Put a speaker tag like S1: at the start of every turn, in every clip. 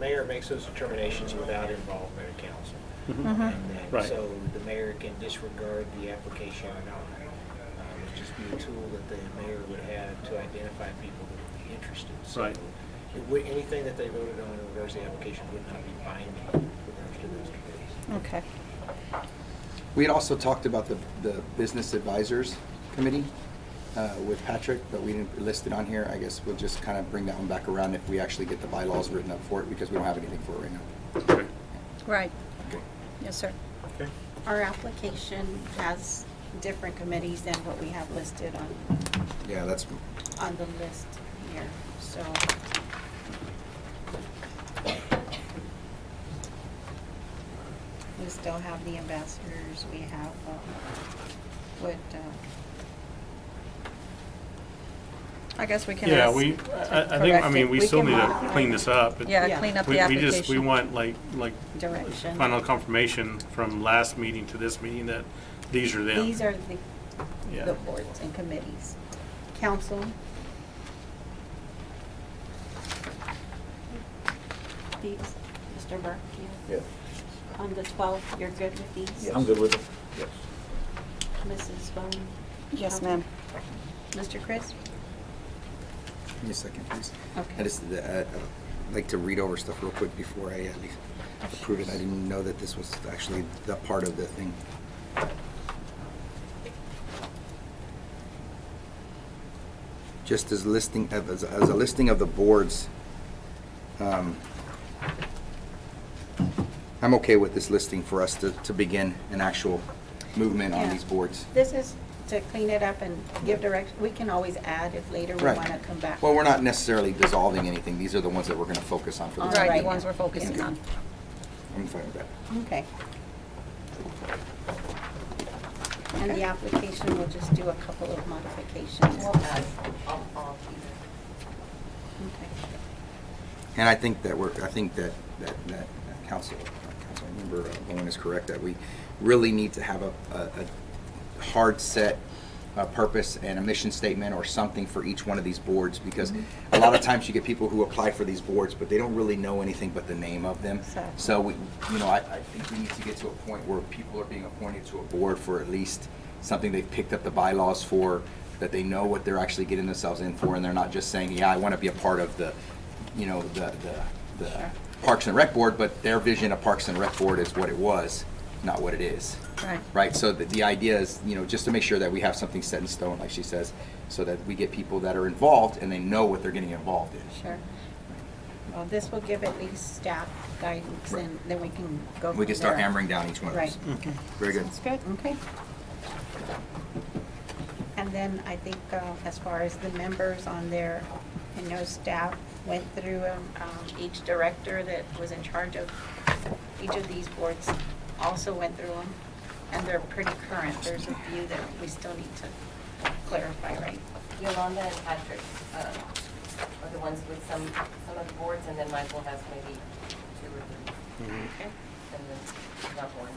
S1: mayor makes those determinations without involvement of council.
S2: Mm-hmm.
S1: And then-
S3: Right.
S1: So the mayor can disregard the application or not. Um, It'd just be a tool that the mayor would have to identify people that would be interested. So
S3: Right.
S1: It would, anything that they voted on in regards to the application would not be binding with regards to those committees.
S2: Okay.
S4: We had also talked about the, the Business Advisors Committee uh, with Patrick, but we didn't list it on here. I guess we'll just kind of bring that one back around if we actually get the bylaws written up for it, because we don't have anything for it right now.
S3: Okay.
S2: Right. Yes, sir.
S3: Okay.
S5: Our application has different committees than what we have listed on,
S4: Yeah, that's,
S5: on the list here, so. We still have the ambassadors, we have, uh, what, uh,
S2: I guess we can
S3: Yeah,
S2: ask.
S3: we, I, I think, I
S2: correct
S3: mean,
S2: it.
S3: we
S5: We
S3: still
S5: can
S3: need to
S5: modify
S3: clean
S5: it.
S3: this up. It-
S2: Yeah,
S5: Yeah.
S2: clean up
S3: we-
S2: the application.
S3: We just, we want like, like
S5: direction.
S3: final confirmation from last meeting to this meeting that these are them.
S5: These are the,
S3: Yeah.
S5: the boards and committees. Council. These, Mr. Burke, you.
S6: Yeah,
S5: On the 12th, you're good with these?
S6: I'm good with it. Yes.
S5: Mrs. Bowman?
S2: Yes, ma'am.
S5: Mr. Chris?
S4: give me a second, please. I
S5: Okay.
S4: just, uh, uh, like to read over stuff real quick before I uh, approve it. I didn't know that this was actually the part of the thing. Just as listing, of- as as a listing of the boards, um, I'm okay with this listing for us to, to begin an actual movement on
S5: Yeah.
S4: these boards.
S5: This is to clean it up and give direction. We can always add if later we
S4: Right.
S5: want to come back.
S4: Well, we're not necessarily dissolving anything. These are the ones that we're going to focus on for the
S5: All
S4: time
S2: Right,
S4: being.
S2: the ones we're focusing on.
S4: I'm fine with that.
S5: Okay. And the application, we'll just do a couple of modifications. Okay.
S4: And I think that we're, I think that, that, that that council, uh, council member uh, Owen is correct, that we really need to have a, a, a hard set uh purpose and a mission statement or something for each one of these boards, because a lot of times you get people who apply for these boards, but they don't really know anything but the name of them.
S5: So-
S4: So we, you know, I, I think we need to get to a point where people are being appointed to a board for at least something they've picked up the bylaws for, that they know what they're actually getting themselves in for, and they're not just saying, yeah, I want to be a part of the, you know, the, the, the
S5: Sure.
S4: Parks and Rec Board, but their vision of Parks and Rec Board is what it was, not what it is.
S2: Right.
S4: Right, so the, the idea is, you know, just to make sure that we have something set in stone, like she says, so that we get people that are involved and they know what they're getting involved in.
S5: Sure. Well, this will give at least staff guidance and then we can go from
S4: We can start
S5: there.
S4: hammering down each one of those.
S5: Right.
S4: Very good.
S5: Sounds good, okay. And then I think uh, as far as the members on there, I know staff went through um, um, each director that was in charge of each of these boards also went through them, and they're pretty current. There's a few that we still need to clarify, right?
S7: Yolanda and Patrick uh, are the ones with some, some of the boards, and then Michael has maybe two or three,
S5: Okay.
S7: and then not one.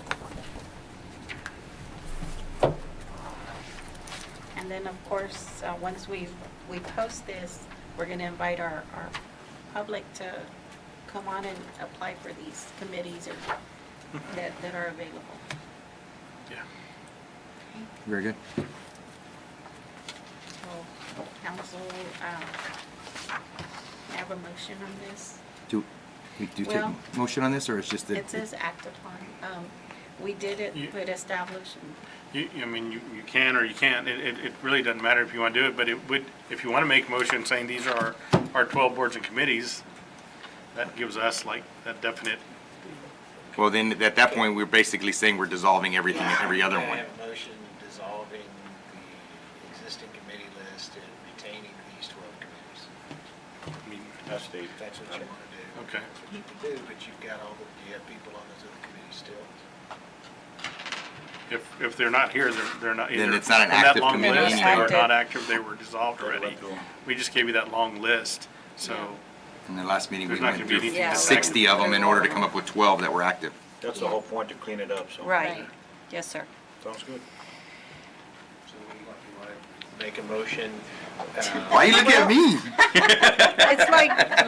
S5: And then, of course, uh, once we, we post this, we're going to invite our, our public to come on and apply for these committees or that, that are available.
S3: Yeah.
S4: Very good.
S5: So, council, um, have a motion on this.
S4: Do, we do take
S5: Well,
S4: motion on this, or it's just that?
S5: It says act upon. Um, We did it,
S3: You-
S5: but established,
S3: You, you- I mean, you, you can or you can't, it, it, it really doesn't matter if you wanna do it, but it would, if you wanna make a motion saying these are our, our twelve boards and committees, that gives us like that definite,
S4: Well, then, at that point, we're basically saying we're dissolving everything, every other
S1: I
S4: one.
S1: have a motion dissolving the existing committee list and retaining these 12 committees.
S3: I mean,
S6: That's the,
S1: If that's what you want to do.
S3: Okay.
S1: That's what you can do, but you've got all the, you have people on those other committees still.
S3: if, if they're not here, they're, they're not either.
S4: Then it's not an
S3: on that
S4: active
S3: long
S4: committee
S3: list, They
S2: anyway.
S3: were not active, they were dissolved
S6: They were
S3: already.
S6: gone.
S3: We just gave you that long list, so,
S4: In the last meeting, we
S3: There's not
S4: went
S3: gonna be
S4: through
S3: anything
S7: to
S4: sixty
S7: say.
S4: of them in order to come up with twelve that were active.
S6: that's the whole point, to clean it up, so.
S2: Right. Yes, sir.
S6: Sounds good.
S1: So you want, you want to make a motion? uh,
S4: Why you looking at me?
S2: It's like